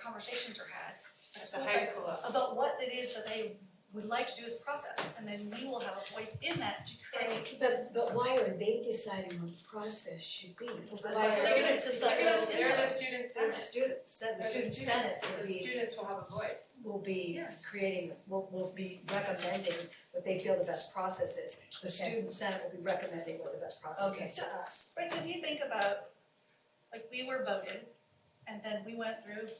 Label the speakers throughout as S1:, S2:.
S1: conversations are had at a
S2: So
S1: school
S2: high
S1: site
S2: school up.
S1: about what it is that they would like to do as process, and then we will have a voice in that to create.
S3: But but why are they deciding what the process should be? This
S2: the students-
S1: it's
S2: They're
S1: like-
S2: the- they're the students,
S1: Senate.
S2: they're the
S3: Students,
S1: Said
S3: the student senate will
S2: the
S3: be,
S2: students will have a voice.
S3: will be
S1: Yeah.
S3: creating, will will be recommending what they feel the best process is. The student senate will be recommending what the best process is to us.
S1: Right, so if you think about, like, we were voted, and then we went through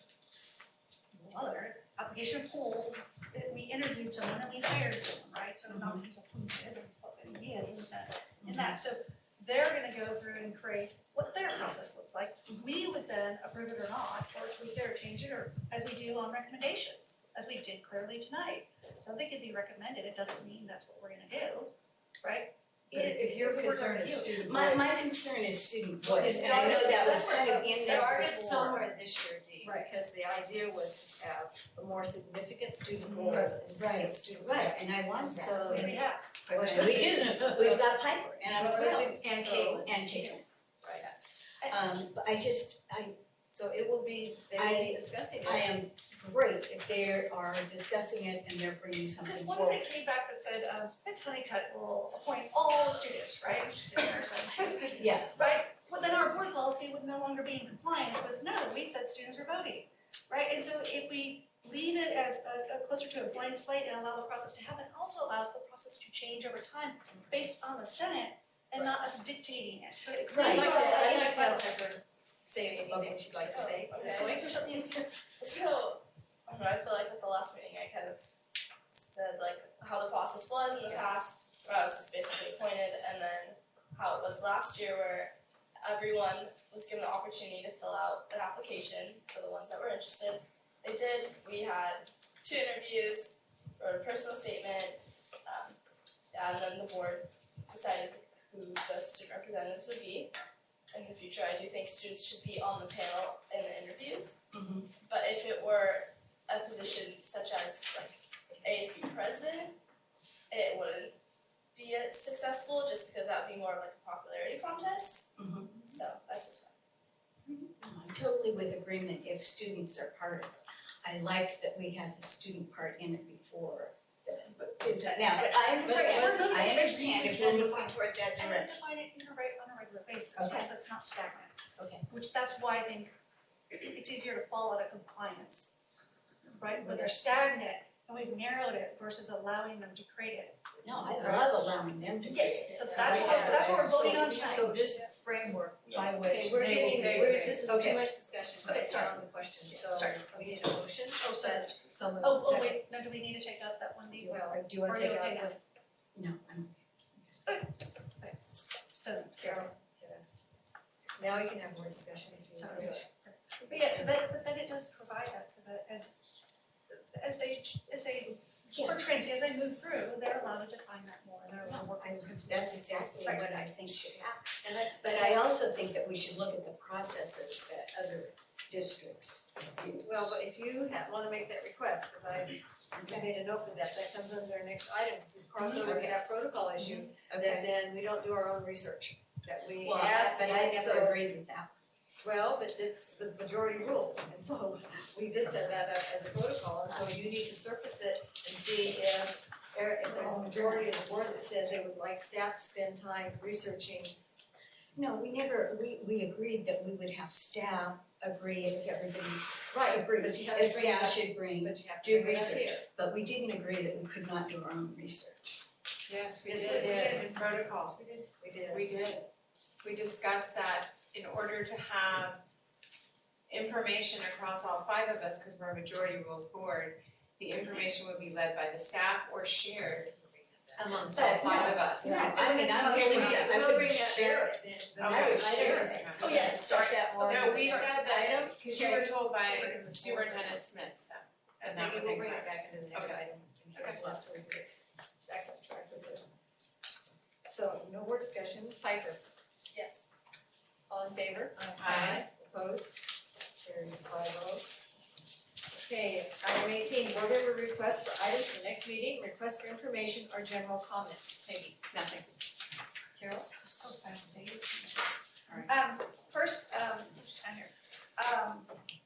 S1: other application pools, that we interviewed someone and we hired someone, right? So not just appointed, it's what he is, and that, and that, so they're gonna go through and create what their process looks like. We would then approve it or not, or tweak it or change it, or as we do on recommendations, as we did clearly tonight. Something could be recommended, it doesn't mean that's what we're gonna do, right?
S3: But
S1: It-
S3: if your
S1: we're
S3: concern
S1: gonna
S3: is
S1: do it.
S3: student
S4: My my
S3: voice,
S4: concern is student
S3: Well,
S4: voice,
S3: it
S4: and I know that was
S3: started-
S4: kind of in there before.
S5: Started somewhere this year, Dee,
S3: Right.
S5: because the idea was to have a more significant student role
S3: Right,
S5: as
S3: Mm-hmm. right.
S5: student right, and I won, so
S1: Which we have.
S4: We do, we've got Piper and I'm
S5: Well,
S4: thrilled, and Kate,
S5: so-
S4: and Kate.
S1: And-
S4: Um, but I just, I
S5: so it will be, they will
S4: I-
S5: be discussing it.
S4: I am great if they are discussing it and they're bringing
S1: Because
S4: something
S1: what if
S4: forward.
S1: they came back that said, um, Miss Honeycutt will appoint all students, right? Which is in there, so-
S4: Yeah,
S1: Right, well, then our board policy would no longer be in compliance with, no, we said students are voting, right? And so if we leave it as a, a closer to a blank slate and allow the process to happen, also allows the process to change over time based on the Senate and not us dictating it, so it
S4: Right.
S5: I'd
S1: creates.
S5: like to, I'd
S1: a-
S5: like to have Pepper say anything
S4: Okay.
S5: she'd like to say.
S1: Oh,
S5: Miss
S1: okay.
S5: Goins or something?
S6: So, I don't know, I feel like at the last meeting, I kind of s- said like how the process was in the past, where I was just basically appointed, and then how it was last year, where everyone was given the opportunity to fill out an application for the ones that were interested. They did, we had two interviews, wrote a personal statement, um, and then the board decided who the student representatives would be. In the future, I do think students should be on the panel in the interviews. But if it were a position such as like ASB president, it wouldn't be as successful just because that would be more of like a popularity contest.
S4: Mhm.
S6: So that's just
S4: Um, I'm totally with agreement if students are part of it. I like that we had the student part in it before, but is it now, but I
S1: But it was-
S4: understand, I understand if we're moving toward that
S1: And then
S4: direction.
S1: define it in a reg- on a regular basis, right, so it's not stagnant.
S4: Okay.
S1: Which that's why I think it's easier to follow out of compliance. Right, when they're stagnant and we've narrowed it versus allowing them to create it.
S4: No, I love allowing them to.
S1: Yes, so
S4: create it.
S1: that's
S4: Right.
S1: what, that's what we're
S3: So-
S1: voting on
S3: So
S1: tonight.
S3: this framework by
S5: Okay,
S3: which they will
S5: we're
S3: be.
S5: getting, we're, this is
S4: Okay.
S5: too much discussion, but
S1: Okay,
S5: it's
S1: sorry.
S5: not on the question,
S1: Yeah,
S5: so
S1: sorry.
S5: we need a motion.
S1: Oh, sorry.
S3: Someone.
S1: Oh, oh, wait, no, do we need to take out that one
S3: Do
S1: D?
S3: you wanna, do you wanna
S1: Are
S3: take
S1: you
S3: it out?
S1: okay now?
S4: No, I'm,
S1: So,
S5: Sarah, now we can have more discussion if you
S1: sorry,
S5: want.
S1: sorry. But yeah, so that, but then it does provide that, so that as, as they, ch- as they,
S4: yeah,
S1: or transient, as they move through, they're allowed to define that more, and they're allowed to work
S4: I, that's exactly
S1: Sorry.
S4: what I think should happen.
S5: And I,
S4: But I also think that we should look at the processes that other districts use.
S5: Well, but if you ha wanna make that request, cause I I made a note of that, that comes under our next item, is crossover with that protocol issue, that
S4: Okay.
S5: then we don't do our own research, that we
S4: Well,
S5: ask,
S4: but I
S5: so-
S4: never agreed with that.
S5: Well, but it's the majority rules, and so we did set that up as a protocol, and so you need to surface it and see if there, if there's a majority of the board that says they would like staff to spend time researching.
S4: No, we never, we, we agreed that we would have staff agree if everybody agreed.
S5: But you have
S4: The
S5: to bring
S4: staff
S5: that,
S4: should bring,
S5: but you have to
S4: do
S5: bring that
S4: research.
S5: here.
S4: but we didn't agree that we could not do our own research.
S2: Yes,
S5: Yes, we did.
S2: In protocol,
S5: We did.
S2: we did. We discussed that in order to have information across all five of us, cause we're a majority rules board, the information would be led by the staff or shared amongst all five of us.
S4: Yeah, I mean, I'm
S5: Okay,
S4: willing
S5: we
S4: to,
S5: did-
S4: I
S5: we'll
S4: would
S5: bring that
S4: share
S5: there,
S4: it.
S5: then the
S2: I would
S5: next
S2: share
S5: item
S2: it.
S5: is-
S1: Oh, yes.
S5: Start that more.
S2: No, we said that item, cause you were
S5: Okay.
S2: told by Superintendent Smith, so, and that was
S5: Maybe we'll bring
S2: incorrect.
S5: it back into the next
S2: Okay.
S5: item. and
S2: Okay.
S5: finish that so we can get back on track with this. So no more discussion, Piper,
S6: yes.
S5: all in favor?
S2: Aye.
S5: Opposed? Carries five oh. Okay, item eighteen, board member requests for items for next meeting, requests for information or general comments, Peggy.
S2: Nothing.
S5: Carol?
S1: so fascinating.
S2: All right.
S1: Um, first, um, who's down here? Um,